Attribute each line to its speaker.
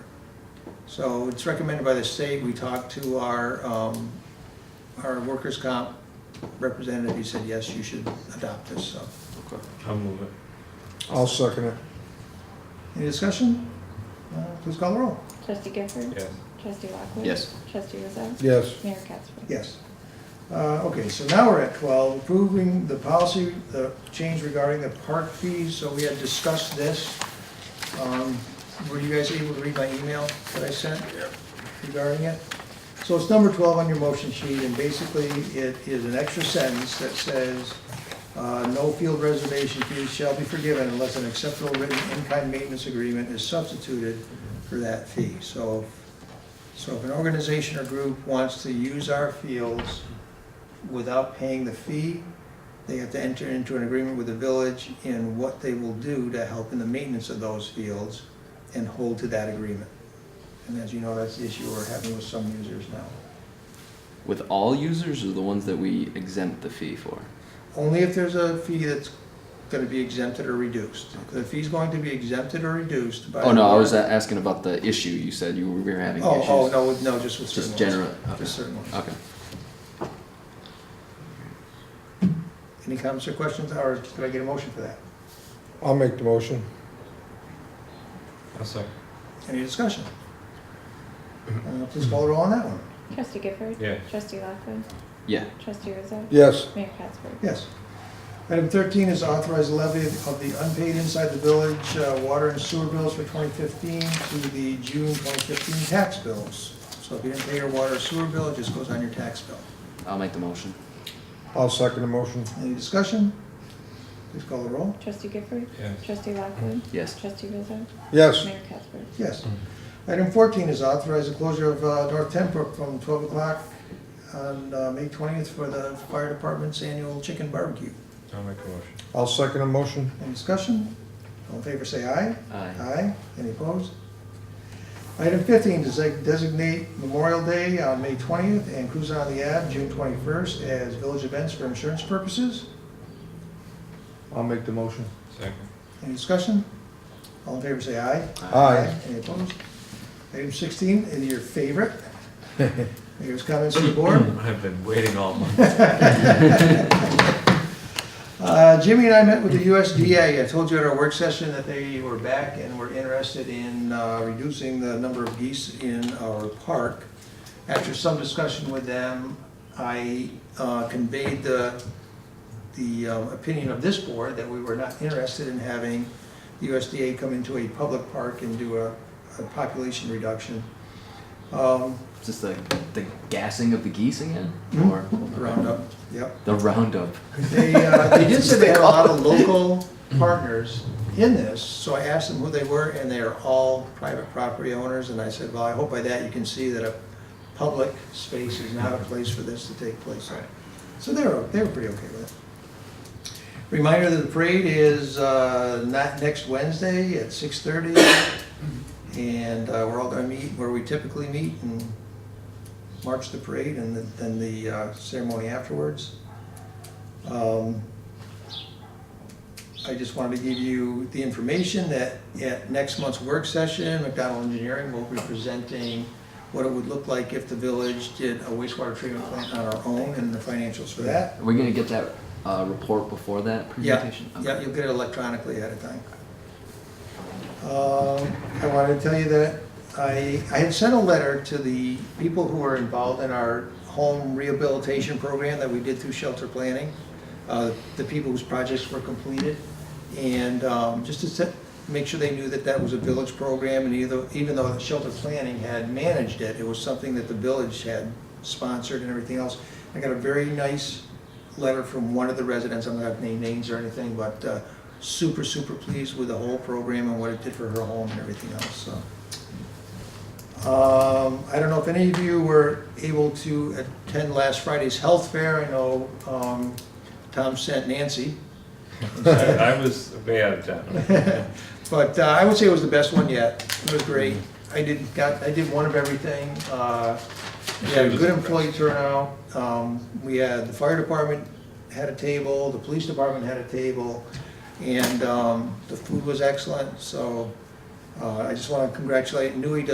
Speaker 1: So it's recommended by the state, we talked to our, um, our workers' comp representative, he said, yes, you should adopt this, so.
Speaker 2: Okay.
Speaker 3: I'll move it.
Speaker 4: I'll second it.
Speaker 1: Any discussion? Uh, Please call the roll.
Speaker 5: Trustee Gifford?
Speaker 3: Yes.
Speaker 5: Trustee Lockwood?
Speaker 2: Yes.
Speaker 5: Trustee Rizzo?
Speaker 4: Yes.
Speaker 5: Mayor Katsberg?
Speaker 1: Yes. Uh, Okay, so now we're at 12, approving the policy, the change regarding the park fees. So we had discussed this. Um, Were you guys able to read my email that I sent regarding it? So it's number 12 on your motion sheet, and basically it is an extra sentence that says, uh, "No field reservation fees shall be forgiven unless an acceptable written in-kind maintenance agreement is substituted for that fee." So so if an organization or group wants to use our fields without paying the fee, they have to enter into an agreement with the village in what they will do to help in the maintenance of those fields and hold to that agreement. And as you know, that's the issue we're having with some users now.
Speaker 2: With all users or the ones that we exempt the fee for?
Speaker 1: Only if there's a fee that's gonna be exempted or reduced. If the fee's going to be exempted or reduced by.
Speaker 2: Oh, no, I was
Speaker 1: the-
Speaker 2: a- asking about the issue you said you were having
Speaker 1: Oh,
Speaker 2: issues.
Speaker 1: oh, no, with- no, just with certain
Speaker 2: Just
Speaker 1: ones.
Speaker 2: general, okay.
Speaker 1: Just certain ones.
Speaker 2: Okay.
Speaker 1: Any comments or questions, or could I get a motion for that?
Speaker 4: I'll make the motion.
Speaker 3: I'll second.
Speaker 1: Any discussion? Uh, Please call the roll on that one.
Speaker 5: Trustee Gifford?
Speaker 3: Yeah.
Speaker 5: Trustee Lockwood?
Speaker 2: Yeah.
Speaker 5: Trustee Rizzo?
Speaker 4: Yes.
Speaker 5: Mayor Katsberg?
Speaker 1: Yes. Item 13 is authorize levy of the unpaid inside the village uh, water and sewer bills for 2015 to the June 2015 tax bills. So if you didn't pay your water or sewer bill, it just goes on your tax bill.
Speaker 2: I'll make the motion.
Speaker 4: I'll second the motion.
Speaker 1: Any discussion? Please call the roll.
Speaker 5: Trustee Gifford?
Speaker 3: Yes.
Speaker 5: Trustee Lockwood?
Speaker 2: Yes.
Speaker 5: Trustee Rizzo?
Speaker 4: Yes.
Speaker 5: Mayor Katsberg?
Speaker 1: Yes. Item 14 is authorize the closure of uh, North Tenbrook from 12 o'clock on uh, May 20th for the fire department's annual chicken barbecue.
Speaker 3: I'll make the motion.
Speaker 4: I'll second the motion.
Speaker 1: Any discussion? All in favor, say aye.
Speaker 2: Aye.
Speaker 1: Aye. Any opposed? Item fifteen, desi- designate Memorial Day on May twentieth and Cruise on the Ave, June twenty-first, as village events for insurance purposes.
Speaker 4: I'll make the motion.
Speaker 3: Second.
Speaker 1: Any discussion? All in favor, say aye.
Speaker 4: Aye.
Speaker 1: Any opposed? Item sixteen, is your favorite. Mayor's comments to the board.
Speaker 3: I've been waiting all month.
Speaker 1: Uh, Jimmy and I met with the USDA. I told you at our work session that they were back and were interested in uh, reducing the number of geese in our park. After some discussion with them, I uh, conveyed the, the um, opinion of this board that we were not interested in having the USDA come into a public park and do a, a population reduction. Um,
Speaker 2: Is this the, the gassing of the geese again?
Speaker 1: Mhm.
Speaker 2: Or
Speaker 1: Roundup, yep.
Speaker 2: The roundup.
Speaker 1: They, uh, they did say they had a lot of local partners in this, so I asked them who they were, and they are all private property owners, and I said, well, I hope by that you can see that a public space is not a place for this to take place. in." So they were, they were pretty okay with it. Reminder that the parade is, uh, not next Wednesday at six thirty, and, uh, we're all gonna meet where we typically meet and march the parade and then the uh, ceremony afterwards. Um, I just wanted to give you the information that at next month's work session, McDonald Engineering will be presenting what it would look like if the village did a wastewater treatment plant on our own and the financials for that.
Speaker 2: Are we gonna get that, uh, report before that presentation?
Speaker 1: Yeah, yeah, you'll get it electronically ahead of time. Um, I wanted to tell you that I, I had sent a letter to the people who were involved in our home rehabilitation program that we did through shelter planning, uh, the people whose projects were completed, and um, just to set, make sure they knew that that was a village program, and either, even though the shelter planning had managed it, it was something that the village had sponsored and everything else. I got a very nice letter from one of the residents, I'm not gonna name names or anything, but uh, super, super pleased with the whole program and what it did for her home and everything else, so. Um, I don't know if any of you were able to attend last Friday's health fair, I know um, Tom sent Nancy.
Speaker 3: I I was way out of town.
Speaker 1: But uh, I would say it was the best one yet. It was great. I did, got, I did one of everything. Uh, We had a good employee turnout. Um, We had, the fire department had a table, the police department had a table, and um, the food was excellent. So uh, I just want to congratulate Nui